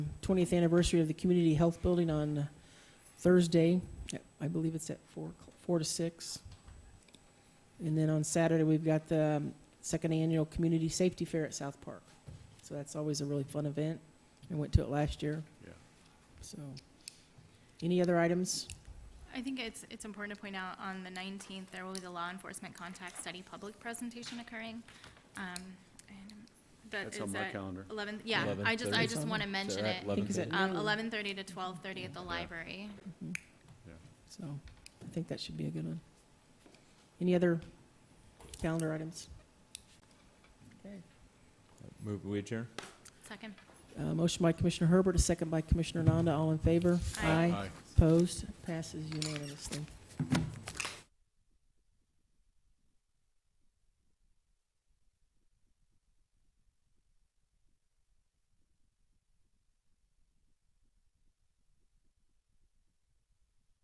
twentieth anniversary of the community health building on Thursday. I believe it's at four, o'clock- four to six. And then on Saturday, we've got the um, second annual community safety fair at South Park. So that's always a really fun event. I went to it last year. Yeah. So, any other items? I think it's, it's important to point out, on the 19th, there will be the law enforcement contact study public presentation occurring. Um, and That That's is on my at calendar. 11, yeah, I just, I 11:30. just want to mention it. I think it's at Um, nine. 11:30 to 12:30 at the library. Mm-hmm. So I think that should be a good one. Any other calendar items? Okay. Move, we adjourn? Second. Uh, Motion by Commissioner Herbert, a second by Commissioner Nanda. All in favor? Aye. Opposed? Passes unanimously.